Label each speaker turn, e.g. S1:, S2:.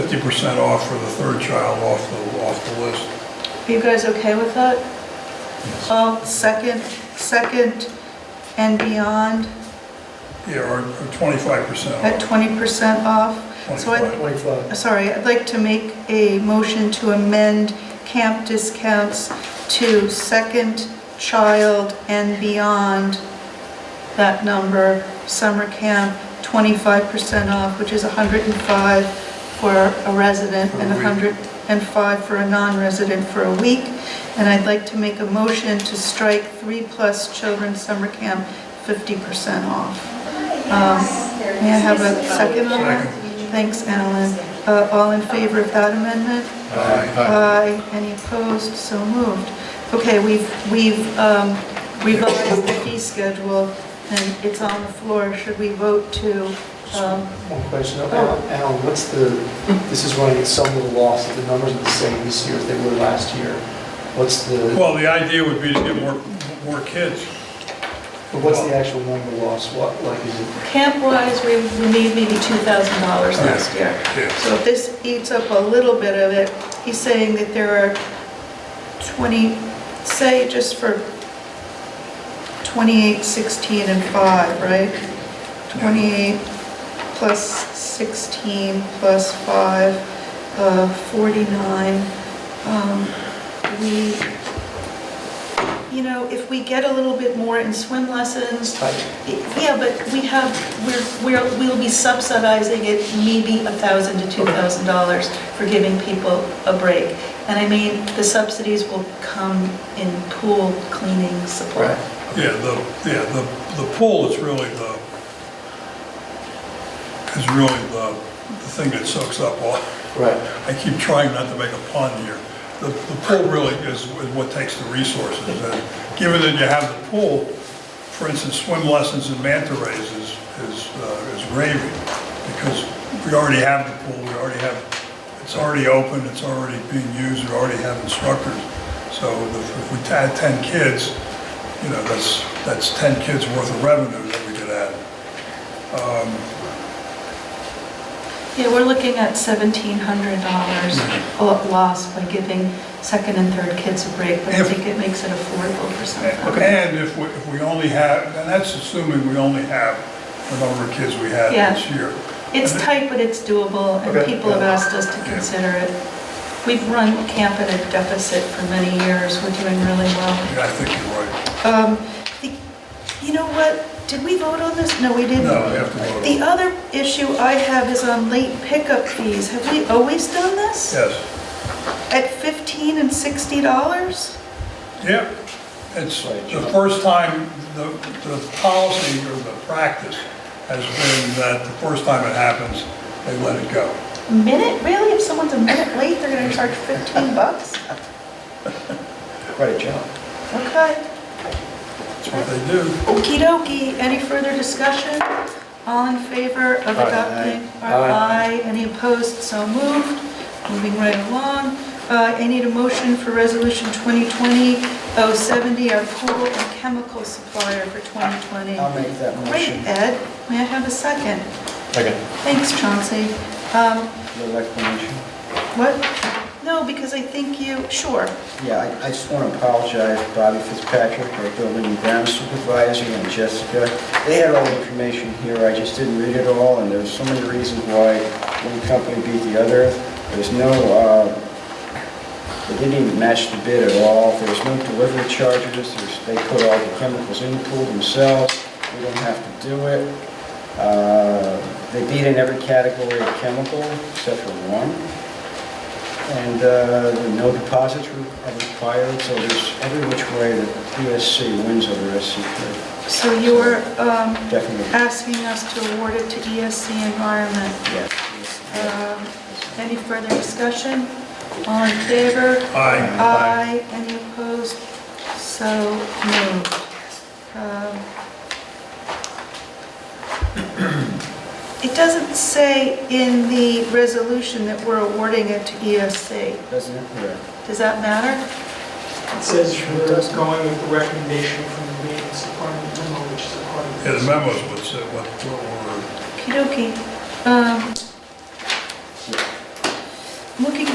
S1: fifty percent off for the third child off the, off the list.
S2: Are you guys okay with that? Um, second, second and beyond
S1: Yeah, or twenty-five percent
S2: at
S1: off.
S2: 20% off? Uh, So I-
S1: 25.
S3: 25.
S2: Sorry, I'd like to make a motion to amend camp discounts to second child and beyond that number, summer camp, 25% off, which is 105 for a resident and
S1: For a week.
S2: 105 for a non-resident for a week. And I'd like to make a motion to strike three-plus children summer camp 50% off. Um, May I have a second on that? Thanks, Alan. Uh, All in favor of that amendment? Aye. Any opposed? So moved. Okay, we've we've um, revised the fee schedule, and it's on the floor. Should we vote to, um,
S3: One question, Al- Alan, what's the, this is running at some little loss, if the numbers are the same this year as they were last year. What's the,
S1: Well, the idea would be to get more, more kids.
S3: but what's the actual number loss? What, like, is it,
S2: camp-wise, we we need maybe $2,000 last year.
S1: Kids.
S2: So if this eats up a little bit of it, he's saying that there are 20, say, just for 28, 16, and 5, right? 28 plus 16 plus 5, uh, 49. Um, We, you know, if we get a little bit more in swim lessons,
S3: it's tight?
S2: yeah, but we have, we're, we're, we'll be subsidizing it maybe a thousand to two thousand dollars for giving people a break. And I mean, the subsidies will come in pool cleaning supply.
S1: Yeah, the, yeah, the, the pool is really the, is really the, the thing that soaks up all,
S3: Right,
S1: I keep trying not to make a pun here. The, the pool really is is what takes the resources. And Given that you have the pool, for instance, swim lessons and manta rays is, is, uh, is gravy, because we already have the pool, we already have, it's already open, it's already being used, we already have instructors. So if if we add 10 kids, you know, that's, that's 10 kids worth of revenue that we could add.
S2: Yeah, we're looking at seventeen hundred dollars lost by giving second and third kids a break, but I
S1: If-
S2: think it makes it affordable for some families.
S1: And if we, if we only have, and that's assuming we only have the number of kids we had
S2: Yeah.
S1: this year.
S2: It's tight, but it's doable, and
S3: Okay.
S2: people have asked us to consider it. We've run camp at a deficit for many years, we're doing really well.
S1: Yeah, I think you're right.
S2: Um, the- You know what, did we vote on this? No, we didn't.
S1: No, we have to vote.
S2: The other issue I have is on late pickup fees. Have we always done this?
S1: Yes,
S2: At 15 and 60 dollars?
S1: yep. It's the first time, the, the policy or the practice has been that the first time it happens, they let it go.
S2: Minute, really? If someone's a minute late, they're gonna charge 15 bucks?
S3: quite a jump.
S2: Okay.
S1: That's what they do.
S2: Okey dokey, any further discussion? All in favor of adopting? Or
S3: Aye.
S2: Aye, any opposed, so moved, moving right along. Uh, I need a motion for Resolution 2020-070, our pool and chemical supplier for 2020.
S4: I'll make that
S2: Great,
S4: motion.
S2: Ed, may I have a second?
S4: Second.
S2: Thanks, Chauncey. Um,
S4: Little explanation?
S2: What? No, because I think you, sure,
S4: Yeah, I- I just want to apologize to Bobby Fitzpatrick, our building and ground supervisor, and Jessica. They had all the information here, I just didn't read it all, and there's so many reasons why one company beat the other. There's no, uh, they didn't even match the bid at all, there's no delivery charges, There's- they put all the chemicals in the pool themselves, we don't have to do it. Uh, They beat in every category of chemical except for one. And uh, no deposits were required, so there's every which way that PSC wins over SCP,
S2: so you were um,
S4: definitely.
S2: asking us to award it to ESC Environment.
S4: yeah.
S2: Um, Any further discussion? All in favor?
S1: Aye.
S2: Aye. Any opposed? So moved. Um, It doesn't say in the resolution that we're awarding it to ESC.
S4: Doesn't it? Yeah.
S2: Does that matter?
S5: It says we're going with the recommendation from the maintenance department memo, which is a part of
S1: Yeah,
S5: this.
S1: the memos would say what, what were,
S2: Okey-dokey. Um, looking